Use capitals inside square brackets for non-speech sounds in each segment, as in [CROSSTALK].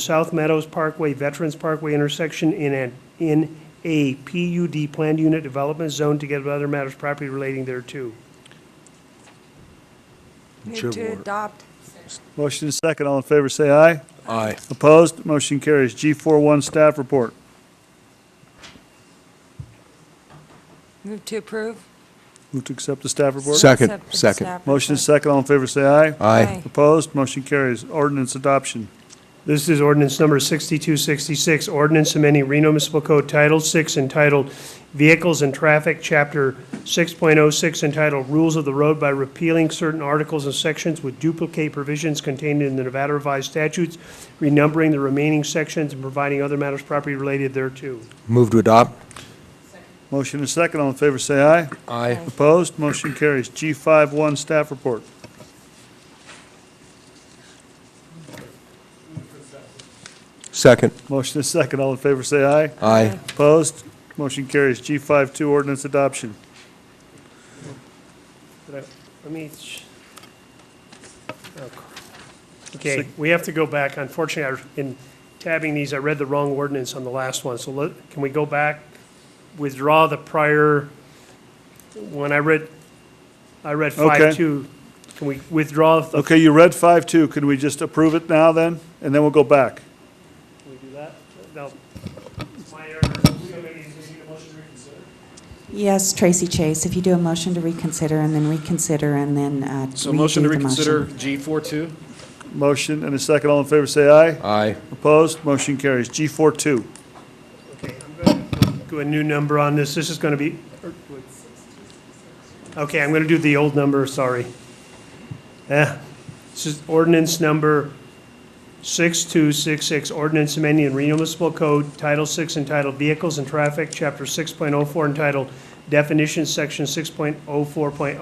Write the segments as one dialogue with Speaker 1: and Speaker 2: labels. Speaker 1: South Meadows Parkway, Veterans Parkway intersection in a, in a PUD planned unit development zone together with other matters property relating thereto.
Speaker 2: Move to adopt.
Speaker 3: Motion is second, all in favor, say aye.
Speaker 4: Aye.
Speaker 3: Opposed, motion carries. G41 staff report.
Speaker 2: Move to approve.
Speaker 3: Move to accept the staff report.
Speaker 4: Second,
Speaker 2: Accept the
Speaker 4: second.
Speaker 2: staff
Speaker 3: Motion is
Speaker 2: report.
Speaker 3: second, all in favor, say aye.
Speaker 4: Aye.
Speaker 3: Opposed, motion carries. Ordinance adoption.
Speaker 1: This is ordinance number 6266, ordinance amending Reno Municipal Code Title 6 entitled Vehicles and Traffic, Chapter 6.06 entitled Rules of the Road by repealing certain articles and sections with duplicate provisions contained in the Nevada Revised Statutes, renumbering the remaining sections and providing other matters property related thereto.
Speaker 4: Move to adopt.
Speaker 3: Motion is second, all in favor, say aye.
Speaker 4: Aye.
Speaker 3: Opposed, motion carries. G51 staff report.
Speaker 4: Second.
Speaker 3: Motion is second, all in favor, say aye.
Speaker 4: Aye.
Speaker 3: Opposed, motion carries. G52 ordinance adoption.
Speaker 1: Let me. ch- oh, crap. Okay, we have to go back. Unfortunately, I- in tabbing these, I read the wrong ordinance on the last one. So let, can we go back, withdraw the prior, when I read, I read
Speaker 3: Okay.
Speaker 1: five two. Can we withdraw the,
Speaker 3: Okay, you read 52, can we just approve it now then, and then we'll go back?
Speaker 1: can we do that? No. My error. Somebody need a motion to reconsider?
Speaker 5: Yes, Tracy Chase, if you do a motion to reconsider and then reconsider and then uh, redo the motion.
Speaker 6: So motion to reconsider G42?
Speaker 3: Motion and a second, all in favor, say aye.
Speaker 4: Aye.
Speaker 3: Opposed, motion carries. G42.
Speaker 1: Okay, I'm going to do a new number on this. This is going to be, okay, I'm going to do the old number, sorry. Eh, This is ordinance number 6266, ordinance amending the Reno Municipal Code, Title 6 entitled Vehicles and Traffic, Chapter 6.04 entitled Definitions, Section 6.04.010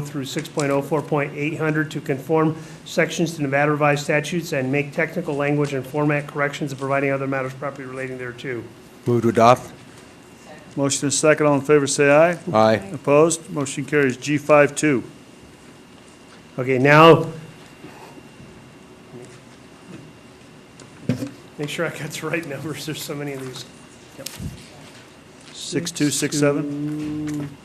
Speaker 1: through 6.04.800 to conform sections to Nevada revised statutes and make technical language and format corrections and providing other matters properly relating thereto.
Speaker 4: Move to adopt.
Speaker 3: Motion is second, all in favor, say aye.
Speaker 4: Aye.
Speaker 3: Opposed, motion carries. G52.
Speaker 1: Okay, now, make sure I got the right numbers, there's so many of these.
Speaker 3: 6267.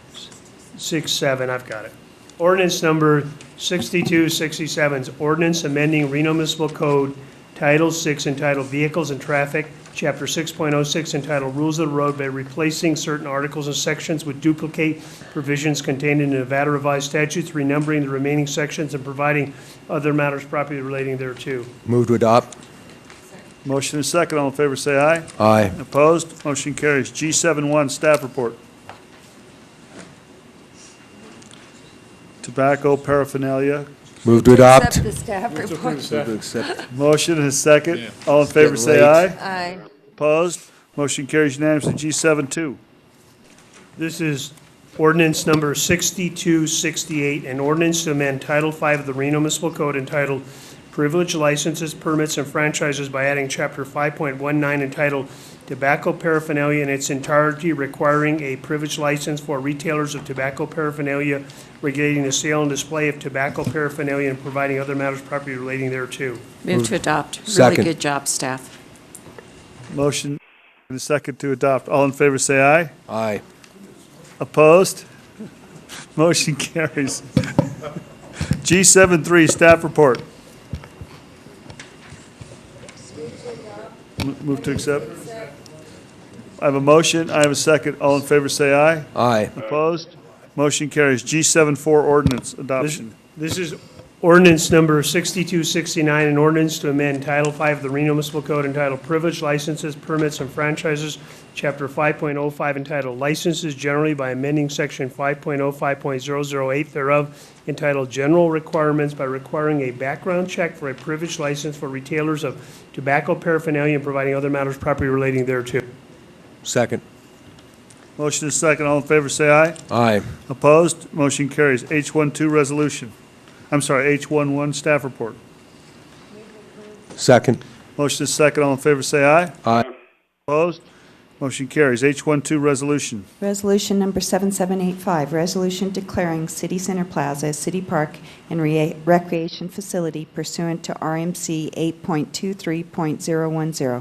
Speaker 1: Six, seven, I've got it. Ordinance number 6267 is ordinance amending Reno Municipal Code Title 6 entitled Vehicles and Traffic, Chapter 6.06 entitled Rules of the Road by replacing certain articles and sections with duplicate provisions contained in Nevada revised statutes, renumbering the remaining sections and providing other matters properly relating thereto.
Speaker 4: Move to adopt.
Speaker 3: Motion is second, all in favor, say aye.
Speaker 4: Aye.
Speaker 3: Opposed, motion carries. G71, staff report. Tobacco paraphernalia.
Speaker 4: Move to adopt.
Speaker 2: Accept the staff report.
Speaker 3: Motion is second, all in favor, say
Speaker 4: Getting
Speaker 3: aye.
Speaker 2: Aye.
Speaker 3: Opposed, motion carries unanimously. G72.
Speaker 1: This is ordinance number 6268, an ordinance to amend Title V of the Reno Municipal Code entitled Privilege Licenses, Permits, and Franchises by adding Chapter 5.19 entitled Tobacco Paraphernalia in its entirety requiring a privilege license for retailers of tobacco paraphernalia, regulating the sale and display of tobacco paraphernalia, and providing other matters properly relating thereto.
Speaker 5: Move to adopt.
Speaker 4: Second.
Speaker 5: Really good job, staff.
Speaker 3: Motion and a second to adopt. All in favor, say aye.
Speaker 4: Aye.
Speaker 3: Opposed? [LAUGHS] Motion carries. G73, staff report. M- Move to accept. I have a motion, I have a second. All in favor, say aye.
Speaker 4: Aye.
Speaker 3: Opposed? Motion carries. G74, ordinance adoption.
Speaker 1: This is ordinance number 6269, an ordinance to amend Title V of the Reno Municipal Code entitled Privilege Licenses, Permits, and Franchises, Chapter 5.05 entitled Licenses Generally by amending Section 5.05.008 thereof entitled General Requirements by requiring a background check for a privilege license for retailers of tobacco paraphernalia and providing other matters properly relating thereto.
Speaker 4: Second.
Speaker 3: Motion is second. All in favor, say aye.
Speaker 4: Aye.
Speaker 3: Opposed? Motion carries. H12, resolution. I'm sorry, H11, staff report.
Speaker 4: Second.
Speaker 3: Motion is second. All in favor, say aye.
Speaker 4: Aye.
Speaker 3: Opposed? Motion carries. H12 resolution.
Speaker 5: Resolution number 7785, resolution declaring City Center Plaza a city park and rea- recreation facility pursuant to RMC 8.23.010.